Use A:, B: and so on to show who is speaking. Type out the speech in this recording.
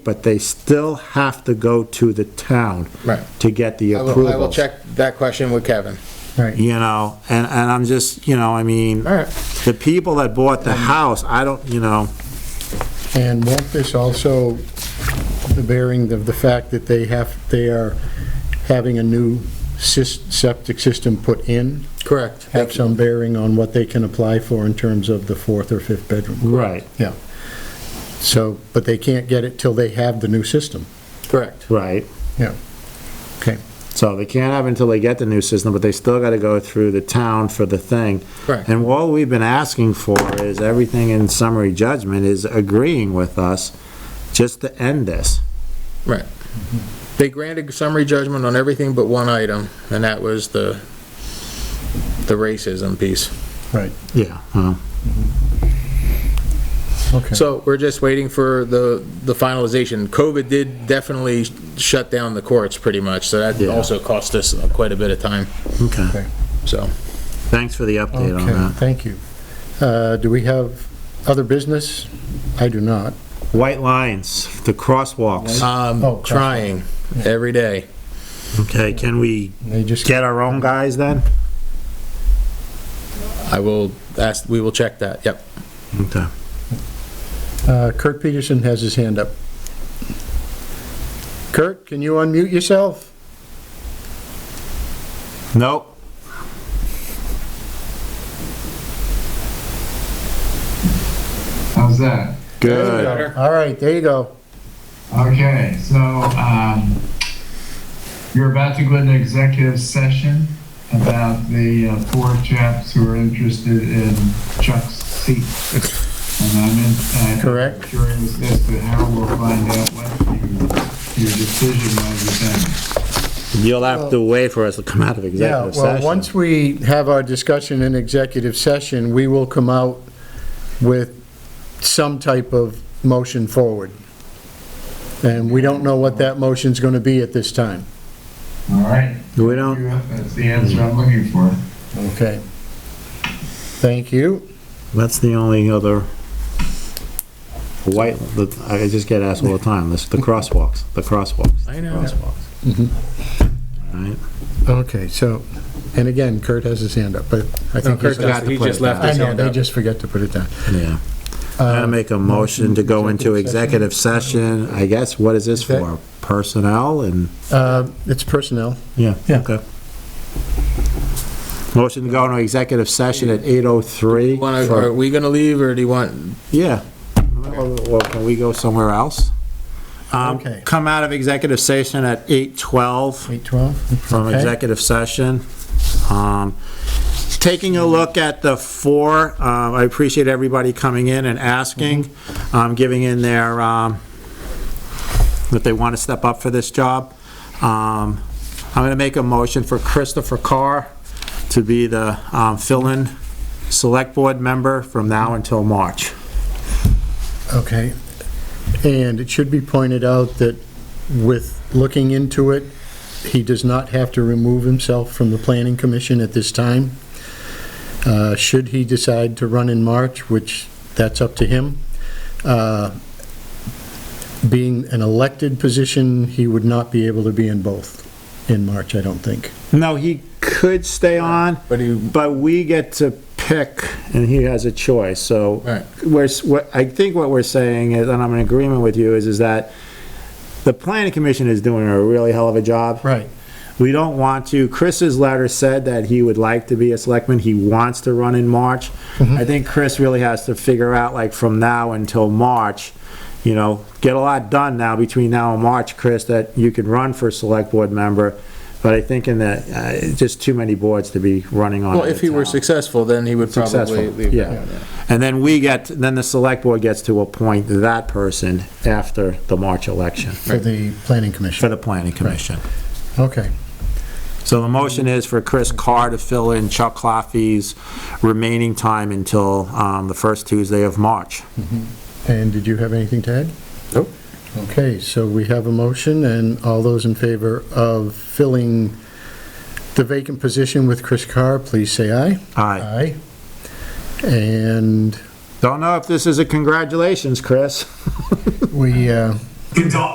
A: but they still have to go to the town.
B: Right.
A: To get the
B: I
A: approval.
B: will, I will check that question with Kevin.
C: Right.
A: You know, and, and I'm just, you know, I mean,
B: All right. Um,
A: the people that bought the house, I don't, you know,
C: And won't this also, the bearing of the fact that they have, they are having a new sys- septic system put in,
B: Correct.
C: have some bearing on what they can apply for in terms of the fourth or fifth bedroom?
A: right,
C: Yeah. So, but they can't get it till they have the new system.
B: Correct.
A: right.
C: Yeah. Okay.
A: So they can't have it until they get the new system, but they still gotta go through the town for the thing.
B: Correct.
A: And what we've been asking for is everything in summary judgment is agreeing with us just to end this.
B: Right. They granted summary judgment on everything but one item, and that was the, the racism piece.
C: Right.
A: Yeah. huh.
C: Okay.
B: So we're just waiting for the, the finalization. COVID did definitely shut down the courts pretty much, so that
A: Yeah.
B: also cost us quite a bit of time,
A: Okay.
C: Okay.
B: so.
A: Thanks for the update on
C: Okay,
A: that.
C: thank you. Uh, Do we have other business? I do not.
A: White lines, the crosswalks.
C: Oh,
B: Um,
C: gosh.
B: trying every day.
A: Okay, can we
C: They just,
A: get our own guys then?
B: I will ask, we will check that, yep.
A: Okay.
C: Uh, Kurt Peterson has his hand up. Kurt, can you unmute yourself?
A: Nope.
D: How's that?
A: Good.
C: All right, there you go.
D: Okay, so um, you're about to go into executive session about the uh, four chaps who are interested in Chuck's seat. And I'm in, I'm
C: Correct.
D: curious as to how we'll find out what you, your decision might be then.
A: You'll have to wait for us to come out of
C: Yeah,
A: executive
C: well,
A: session.
C: once we have our discussion in executive session, we will come out with some type of motion forward. And we don't know what that motion's going to be at this time.
D: All right?
A: We don't,
D: That's the answer I'm looking for.
C: Okay. Thank you.
A: that's the only other white, the- I just get asked all the time, this, the crosswalks, the crosswalks.
B: I
A: the
B: know.
A: Crosswalks. All right.
C: Okay, so, and again, Kurt has his hand up, but I think
B: Kurt
C: he's got
B: does. He just left
C: I
B: his
C: know,
B: hand
C: they
B: up.
C: just forget to put it down.
A: Yeah. I'm gonna make a motion to go into executive session. I guess, what is this for? Personnel and,
C: Uh, It's personnel.
A: yeah.
C: Yeah.
A: Okay. Motion to go into executive session at 8:03.
B: Wanna-
A: for-
B: Are we gonna leave, or do you want,
A: Yeah. Or or can we go somewhere else? Um,
C: Okay.
A: Come out of executive session at 8:12
C: 812?
A: from executive session. Um, Taking a look at the four, uh, I appreciate everybody coming in and asking, um, giving in their, um, that they want to step up for this job. Um, I'm going to make a motion for Christopher Carr to be the um, fill-in Select Board member from now until March.
C: Okay. And it should be pointed out that with looking into it, he does not have to remove himself from the planning commission at this time. Uh, Should he decide to run in March, which that's up to him, uh, being an elected position, he would not be able to be in both in March, I don't think.
A: No, he could stay on,
B: but you,
A: but we get to pick, and he has a choice, so.
B: Right.
A: We're, s- what, I think what we're saying is, and I'm in agreement with you, is, is that the planning commission is doing a really hell of a job.
C: Right.
A: We don't want to, Chris's letter said that he would like to be a selectman, he wants to run in March.
B: Mm-hmm.
A: I think Chris really has to figure out, like, from now until March, you know, get a lot done now, between now and March, Chris, that you can run for select board member, but I think in that, uh, it's just too many boards to be running on.
B: well,
A: at
B: if
A: a
B: he were
A: time.
B: successful, then he would probably
A: Successful,
B: leave.
A: yeah. And then we get, then the select board gets to appoint that person after the March election
C: For the planning
A: for
C: commission.
A: the planning commission.
C: Okay.
A: So the motion is for Chris Carr to fill in Chuck Claffey's remaining time until um, the first Tuesday of March.
C: And did you have anything to add?
B: Nope.
C: Okay, so we have a motion, and all those in favor of filling the vacant position with Chris Carr, please say aye.
A: Aye.
C: Aye. And
A: Don't know if this is a congratulations, Chris.
C: we, uh,
E: it's all,